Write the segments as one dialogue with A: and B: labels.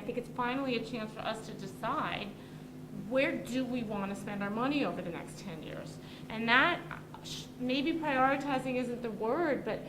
A: think it's finally a chance for us to decide where do we want to spend our money over the next 10 years? And that, uh, sh- maybe prioritizing isn't the word, but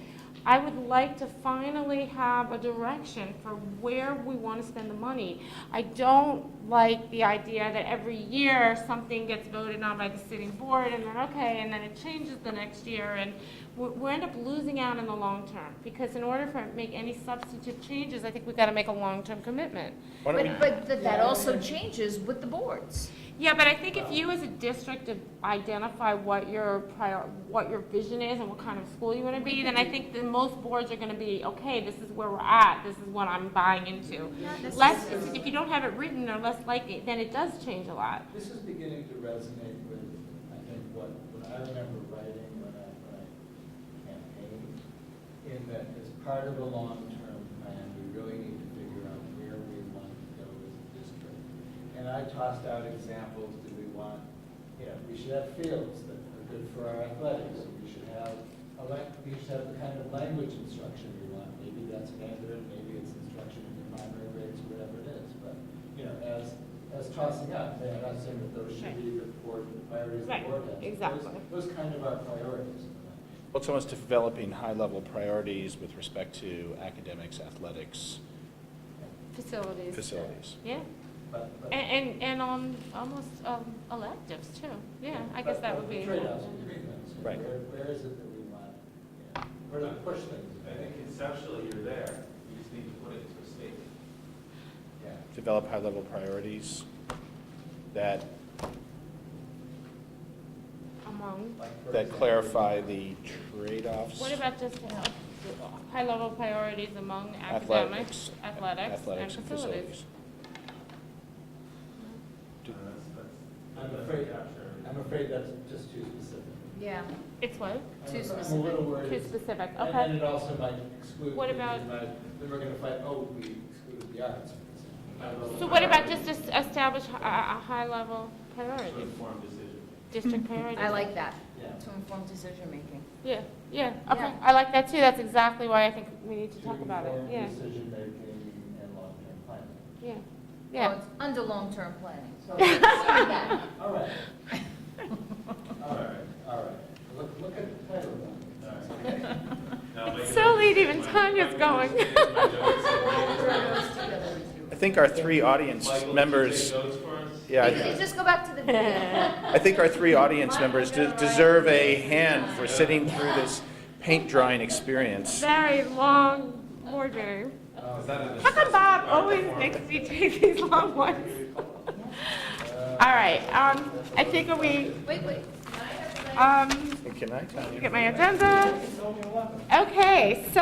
A: I would like to finally have a direction for where we want to spend the money. I don't like the idea that every year something gets voted on by the sitting board and then, okay, and then it changes the next year and we, we end up losing out in the long term. Because in order for, it to make any substantive changes, I think we've got to make a long-term commitment.
B: Why don't we,
C: But, but that- that also changes with the boards.
A: Yeah, but I think if you as a district identify what your prior, what your vision is and what kind of school you want to be, then I think that most boards are going to be, okay, this is where we're at, this is what I'm buying into. Less, if you don't have it written, they're less likely, then it does change a lot.
D: This is beginning to resonate with, I think, what, what I remember writing when I, when I campaigned, in that as part of a long-term plan, we really need to figure out where we want to go as a district. And I tossed out examples, do we want, you know, we should have fields that are good for our athletics, we should have, a lang- we should have the kind of language instruction we want, maybe that's Mandarin, maybe it's instruction in the primary grades, whatever it is, but, you know, as, as tossing up, then I'm not saying that those should be the board, the priorities the
A: Right,
D: board has.
A: exactly.
D: Those those kind of our priorities.
B: what's almost developing high-level priorities with respect to academics, athletics,
A: Facilities.
B: facilities?
A: Yeah,
D: But, but.
A: and, and, and on almost um, electives too. Yeah, I guess
D: but-
A: that
D: but
A: would be.
D: the Trade-offs, we agree on. So
B: Right.
D: Where, where is it that we want, yeah, where do we push things?
E: I think conceptually you're there, you just need to put it into a statement.
D: Yeah.
B: Develop high-level priorities that,
A: Among.
D: Like, for
B: that
D: example,
B: clarify the trade-offs.
A: What about just high-level priorities among academics,
B: Athletics.
A: athletics, and
B: athletics
A: facilities?
B: Do-
E: Uh, that's- that's-
D: I'm
E: that's
D: afraid-
E: capture.
D: I'm afraid that's just too specific.
C: Yeah.
A: It's what?
D: I'm-
C: Too
D: I'm a
C: specific.
D: little
A: Too
D: worried.
A: specific,
D: And then
A: okay.
D: it also might exclude.
A: What
D: things
A: about-
D: that might- Then we're gonna fight, oh, we excluded the arts. for example. I don't know.
A: So what about just es- establish a, a high-level
E: To
A: priority,
E: inform decision.
A: district priority?
C: I like that,
D: Yeah.
C: to inform decision-making.
A: Yeah, yeah, okay,
C: Yeah.
A: I like that too, that's exactly why I think we need to talk about it,
D: inform
A: yeah,
D: Decision-making and long-term planning.
A: yeah,
C: Oh,
A: yeah.
C: it's Under long-term planning.
D: So,
C: Sorry, yeah.
D: all right, all
E: All
D: right,
E: right,
D: all right. Look, look at the title of that.
E: all right. Now,
A: It's
E: like,
A: so late, even
E: my-
A: Tanya's
E: my
A: going.
E: goodness, my jokes are-
B: I think our three audience
E: Michael, did you
B: members,
E: take notes for us?
B: yeah, I-
C: Just- Just go back to the video.
B: I think our three audience members de- deserve a hand for sitting through this paint drying experience.
A: Very long board meeting.
D: Oh,
E: Is that an-
A: How come Bob
E: Our
A: always
E: performance.
A: makes me take these long ones?
D: uh,
A: All right, um, I think are we,
C: Wait, wait.
A: um,
B: And Can I tell you?
A: get my agenda.
D: It's only eleven.
A: Okay, so,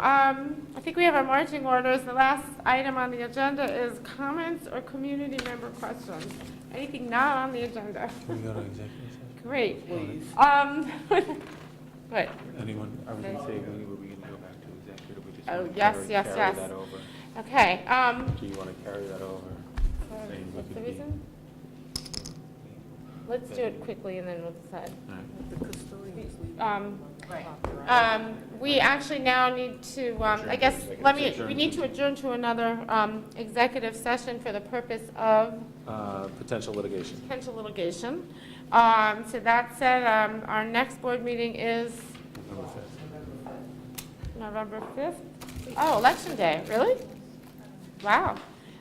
A: um, I think we have our marching orders. The last item on the agenda is comments or community member questions. Anything not on the agenda?
F: Can we go to executive session?
A: Great.
F: Please.
A: Um, but,
F: Anyone? I was
A: gonna
F: say, were we gonna go back to executive, we just
A: Oh, wanna yes, carry- yes, carry yes. that
F: over?
A: okay, um,
F: Do you wanna carry that over?
A: what's the reason? Let's do it quickly and then we'll decide. Um,
C: Right.
A: Um, we actually now need to, um, I guess, let me, we need to adjourn to another, um, executive session for the purpose of
F: Uh, potential litigation.
A: potential litigation. Um, so that said, um, our next board meeting is November fifth. Oh, election day, really? Wow.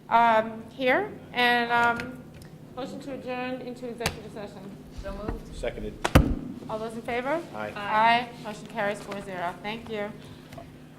A: Um, here, and, um, motion to adjourn into executive session.
C: So moved.
B: Seconded.
A: All those in favor?
B: Aye.
A: Aye, motion carries four zero. Thank you.